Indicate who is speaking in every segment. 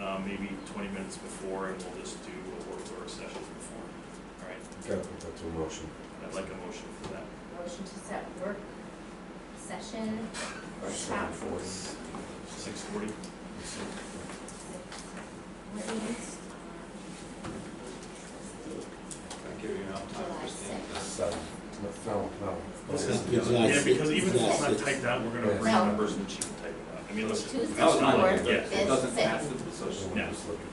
Speaker 1: uh, maybe twenty minutes before, and we'll just do a work order session before. All right,
Speaker 2: Gotta put that to a motion.
Speaker 1: I'd like a motion for that.
Speaker 3: Motion to set work session workshop.
Speaker 1: Six forty?
Speaker 3: What meetings?
Speaker 4: I give you enough time,
Speaker 3: July
Speaker 4: Christine.
Speaker 2: Seven, no, no.
Speaker 1: This is-
Speaker 5: Yes,
Speaker 1: Yeah, because even if it's not
Speaker 5: yes.
Speaker 1: typed out, we're gonna
Speaker 2: Yes.
Speaker 1: bring
Speaker 3: Well-
Speaker 1: numbers and she can type it out. I mean, listen.
Speaker 3: Tuesday,
Speaker 4: No, it's not like
Speaker 3: fourth,
Speaker 4: that.
Speaker 1: Yeah.
Speaker 4: It
Speaker 3: fifth,
Speaker 4: doesn't
Speaker 3: sixth.
Speaker 4: have to be social.
Speaker 1: Yeah.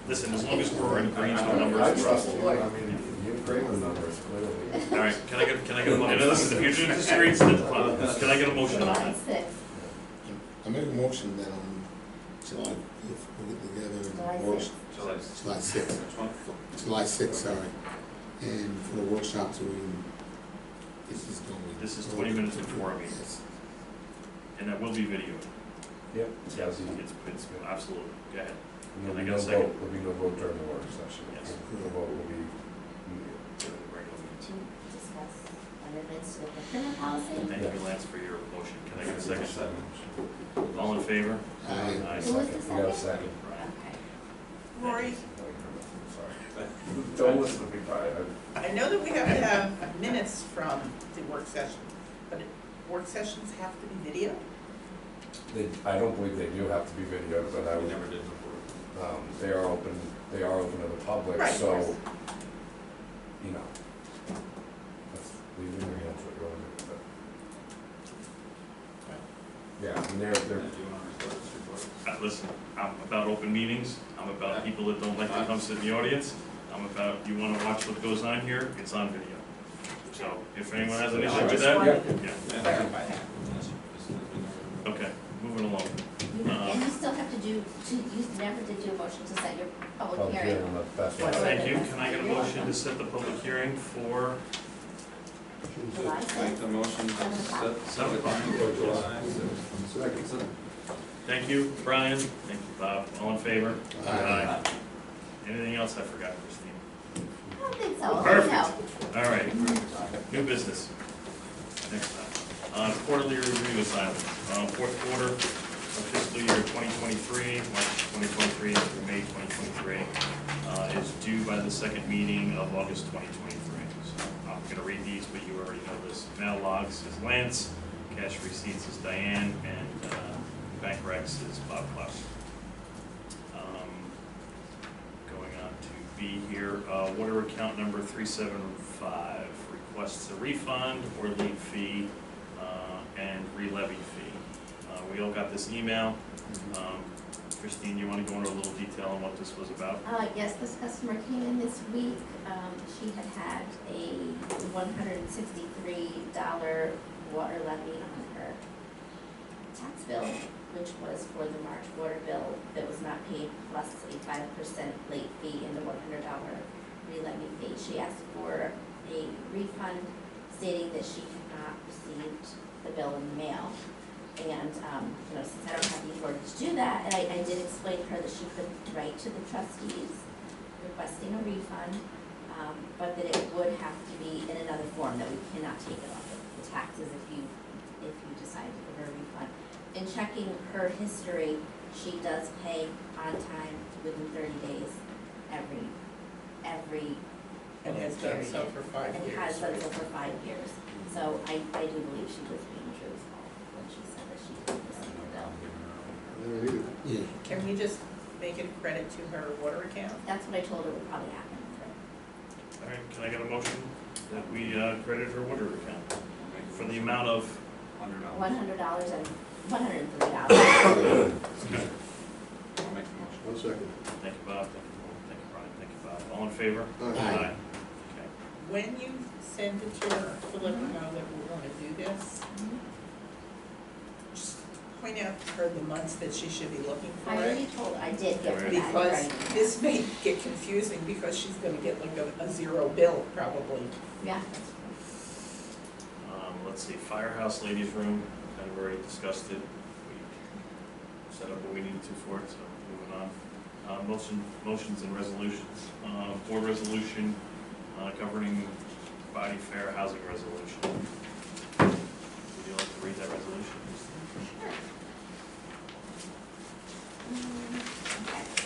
Speaker 1: Listen, as long as we're in agreement on
Speaker 2: I
Speaker 1: numbers.
Speaker 2: trust you, I mean, you agree with numbers, clearly.
Speaker 1: All right, can I get, can I get a motion? Listen, if you disagree, it's the, uh, can I get a motion on
Speaker 3: July
Speaker 1: that?
Speaker 3: sixth,
Speaker 5: I make a motion that on July, if we get together
Speaker 3: July
Speaker 5: and work,
Speaker 3: sixth.
Speaker 4: July
Speaker 5: July sixth,
Speaker 4: Which one?
Speaker 5: July sixth, uh, sorry. And for the workshop, so we, can- this is going.
Speaker 1: This is 20 minutes before our meeting.
Speaker 5: Yes.
Speaker 1: And that will be video.
Speaker 2: Yep.
Speaker 1: Yeah, it's, it's, absolutely, go ahead.
Speaker 2: There'll be
Speaker 1: I
Speaker 2: no
Speaker 1: got a second?
Speaker 2: vote, there'll be no vote during the work session.
Speaker 1: Yes.
Speaker 2: The vote will be,
Speaker 1: During the regular
Speaker 3: to
Speaker 1: meeting.
Speaker 3: discuss amendments to the procurement policy.
Speaker 1: Thank you,
Speaker 2: Yeah.
Speaker 1: Lance, for your motion. Can I get a
Speaker 2: Second.
Speaker 1: second? All in favor?
Speaker 5: Aye.
Speaker 1: Aye.
Speaker 3: Who was the
Speaker 2: We got a
Speaker 3: second?
Speaker 2: second.
Speaker 3: Okay.
Speaker 1: Right.
Speaker 6: Rory,
Speaker 2: Sorry. Don't listen to me, Brian.
Speaker 6: I know that we have to have minutes from the work session, but work sessions have to be video?
Speaker 2: They, I don't believe they do have to be videoed, but I
Speaker 4: We
Speaker 2: would,
Speaker 4: never did before.
Speaker 2: um, they are open, they are open to the public,
Speaker 6: Right, of
Speaker 2: so,
Speaker 6: course.
Speaker 2: you know. That's, leave it in your hands, what you wanna do with it. Yeah, and they're,
Speaker 4: Do you
Speaker 2: they're,
Speaker 4: want to record this report?
Speaker 1: Uh, Listen, I'm about open meetings, I'm about people that don't like to come sit in the audience, I'm about, you wanna watch what goes on here, it's on video. So, if anyone has an issue with that,
Speaker 2: Yeah.
Speaker 1: yeah,
Speaker 4: Yeah.
Speaker 6: Clarify that.
Speaker 4: Yes, this has been never-
Speaker 1: okay, moving along.
Speaker 3: You- And you still have to do, to- you never did do a motion to set your public
Speaker 2: public
Speaker 3: hearing.
Speaker 2: hearing, that's
Speaker 3: Well,
Speaker 2: why.
Speaker 1: Thank you, can I get a motion to set the public hearing for
Speaker 3: July
Speaker 4: Make
Speaker 3: sixth,
Speaker 4: the motion to
Speaker 3: Seven o'clock.
Speaker 4: set, set the time for July sixth.
Speaker 1: Thank you, Brian. Thank you, Bob. All in favor?
Speaker 5: Aye.
Speaker 1: Anything else I forgot, Christine?
Speaker 3: I don't think so, no.
Speaker 1: Perfect. All right, new business. Next time. Uh, quarterly review assignment, uh, fourth quarter of fiscal year twenty twenty-three, March twenty twenty-three through May twenty twenty-three, uh, is due by the second meeting of August twenty twenty-three. So I'm gonna read these, but you already know this. Mail logs is Lance, cash receipts is Diane, and, uh, bank recs is Bob Klaus. Um, going on to be here. Uh, Water account number 375 requests a refund or late fee uh, and re-levy fee. Uh, We all got this email. Um, Christine, you want to go into a little detail on what this was about?
Speaker 3: Uh, yes, this customer came in this week, um, she had had a one hundred and sixty-three dollar water levy on her tax bill, which was for the March water bill that was not paid, plus a five percent late fee and the one hundred dollar re-levy fee. She asked for a refund stating that she had not received the bill in the mail. And, um, you know, since I don't have the authority to do that, and I, I did explain to her that she could write to the trustees requesting a refund, um, but that it would have to be in another form, that we cannot take it off of the taxes if you, if you decide to give her a refund. In checking her history, she does pay on time within thirty days every, every
Speaker 6: And has done so for five
Speaker 3: and
Speaker 6: years.
Speaker 3: has done
Speaker 6: right?
Speaker 3: so for five years. So I, I do believe she was being truthful when she said that she didn't receive the bill.
Speaker 5: Yeah.
Speaker 6: Can we just make it a credit to her water account?
Speaker 3: That's what I told her would probably happen.
Speaker 1: All right, can I get a motion that we uh, credit her water account for the amount of,
Speaker 4: Hundred dollars.
Speaker 3: One hundred dollars and, one hundred and three dollars.
Speaker 4: I'll make the motion.
Speaker 5: One second.
Speaker 1: thank you, Bob, thank you, Paul, thank you, Brian, thank you, Bob. All in favor?
Speaker 5: Aye.
Speaker 1: Okay.
Speaker 6: When you send it to her, to let her know that we wanna do this, just point out to her the months that she should be looking for
Speaker 3: I
Speaker 6: it.
Speaker 3: already told, I did give her that. in
Speaker 6: Because
Speaker 3: writing.
Speaker 6: this may get confusing, because she's gonna get like a, a zero bill probably.
Speaker 3: Yeah.
Speaker 1: Um, let's see, firehouse ladies room, kind of already discussed it. We set up what we needed to for it, so moving on. Uh, motion, motions and resolutions. Uh, board resolution, uh, governing body fair housing resolution. Would you like to read that resolution?
Speaker 3: Um, okay.